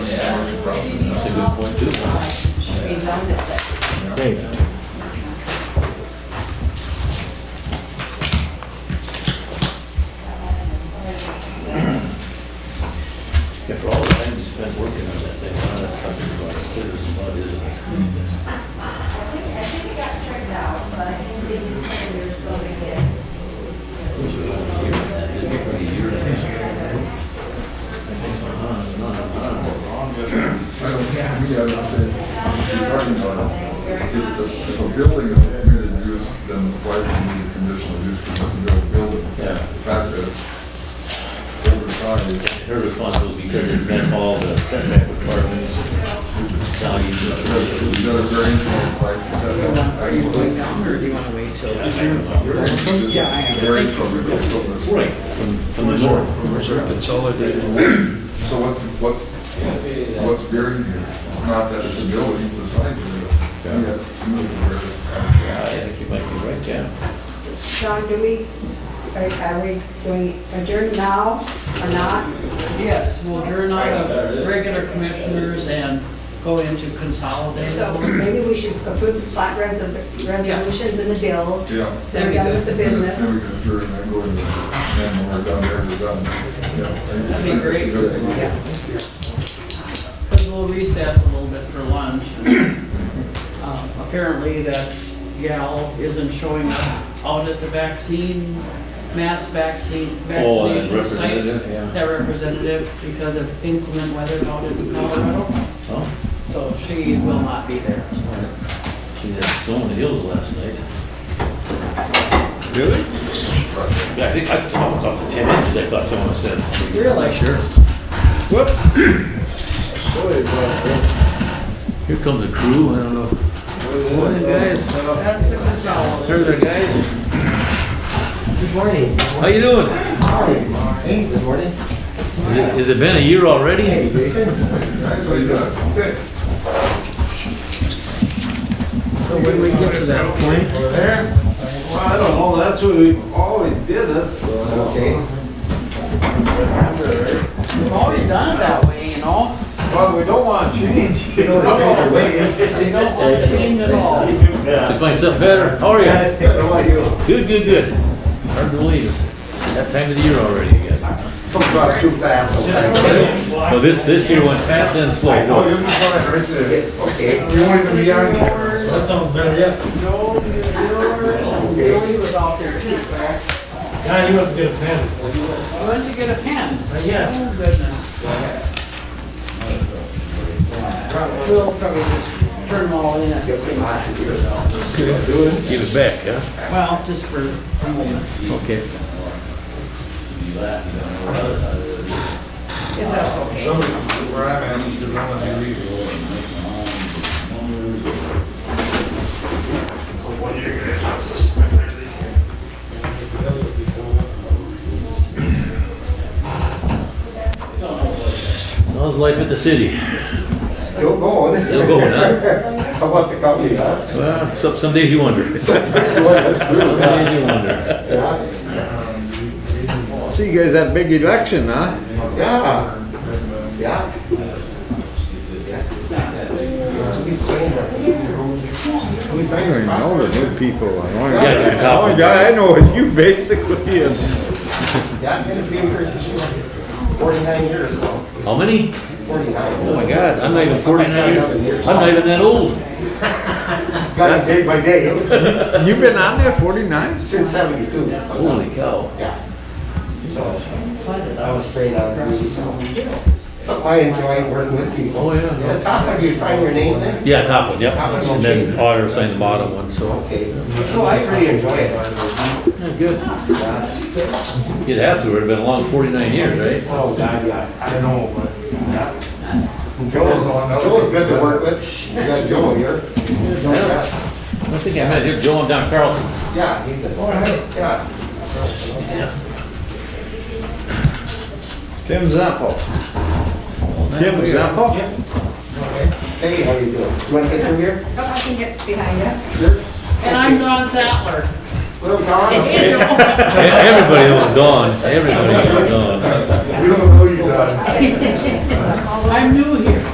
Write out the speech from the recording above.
good point, too. rezoned it so. There you go. After all the time you spent working on that thing, now that stuff is about as clear as mud, isn't it? Those are all here, that didn't bring a year in. Things went on and on and on. If a building is permitted use, then why do you need a conditional use permit to build a building? Yeah. The fact is, over time, her responsibility because it met all the setback requirements, values. you got a variance from five to seven. Are you going down or do you want to wait till? Yeah, I am. Variance from your building. Right, from, from the north. So what's, what's, what's varying here? It's not that it's a building, it's a size of it. Yeah. Yeah, it's a variance. Yeah, I think you might be right, yeah. Sean, do we, are are we doing adjourn now or not? Yes, we'll adjourn out of regular commissioners and go into consolidated. So maybe we should approve the plat res- resolutions and the bills. Yeah. So we're done with the Then business. we can adjourn and go into, and when we're done there, we're done. Yeah. That'd be great. Yeah. Because we'll recess a little bit for lunch. Um, Apparently that gal isn't showing up out at the vaccine, mass vaccine, Oh, and vaccination site. representative, yeah. That representative because of inclement weather out in Colorado. Oh, So she will not be there. she had snow in the hills last night. Really? Yeah, I think, I thought it was up to ten inches, I thought someone said. Really? Sure. Here comes the crew, I don't know. Morning, guys. That's the consolidated. Here there, guys. Good morning. How you doing? Hey, good morning. Is it- Has it been a year already? Hey, Jason. So you got it. So when we get to that point, Well, I don't know, that's what we've always did Oh, it, so. Okay. We've already done it that way, you know? Well, we don't want to change. You know, it's right away. We don't want to change at all. to find something better. How are you? How are you? Good, good, good. Hard to believe it's that time of the year already again. Come across too fast. sometimes. Well, this, this year went fast and slow. Oh, you're fine, right there. Okay. You want to be on camera? That sounds better, yeah. Joe, yours, Joey was out there too, correct? Yeah, you must get a pen. Why don't you get a pen? Yeah. Oh, goodness. We'll probably just turn them all in at the same time. Give it back, yeah? Well, just for a moment. Okay. If that's okay. Where I'm at, because I'm gonna be leaving. How's life at the city? Still going. Still going, huh? How about the company, huh? Well, some, some days you wonder. Some days you wonder. Yeah. So you guys had a big election, huh? Yeah. Yeah. I don't even know the new people. I only- Yeah, you're the top Only one. guy Oh I know is you, basically, and Yeah, I've been a painter for 49 years, so, How many? 49. Oh my God, I'm not even forty-nine years, I'm not even that old. Got it day by day, you've been on there forty-nine? since 72. Holy cow. Yeah. So, I was straight out of the Something I enjoy, working with people. Oh, yeah, yeah. At the top, have you sign your name there? Yeah, top one, yep. Top one, And then auditor signed the bottom one, so. Okay. No, I pretty enjoy it. Yeah, Good. Yeah. You'd have to, it'd been a long forty-nine years, right? Oh, God, yeah. I know, but. Joe's, Joe's good to work with. You got Joe here. Joe, yeah. I don't think I met him, Joe and Don Carlson. Yeah, he's a, yeah. Tim Zappo. Tim Zappo? Hey, how you doing? You wanna get through here? If I can get behind you. And I'm Don Sattler. Little Don? Hey, Joe. Everybody knows Don, everybody knows Don. We don't know you, Don. I'm new here.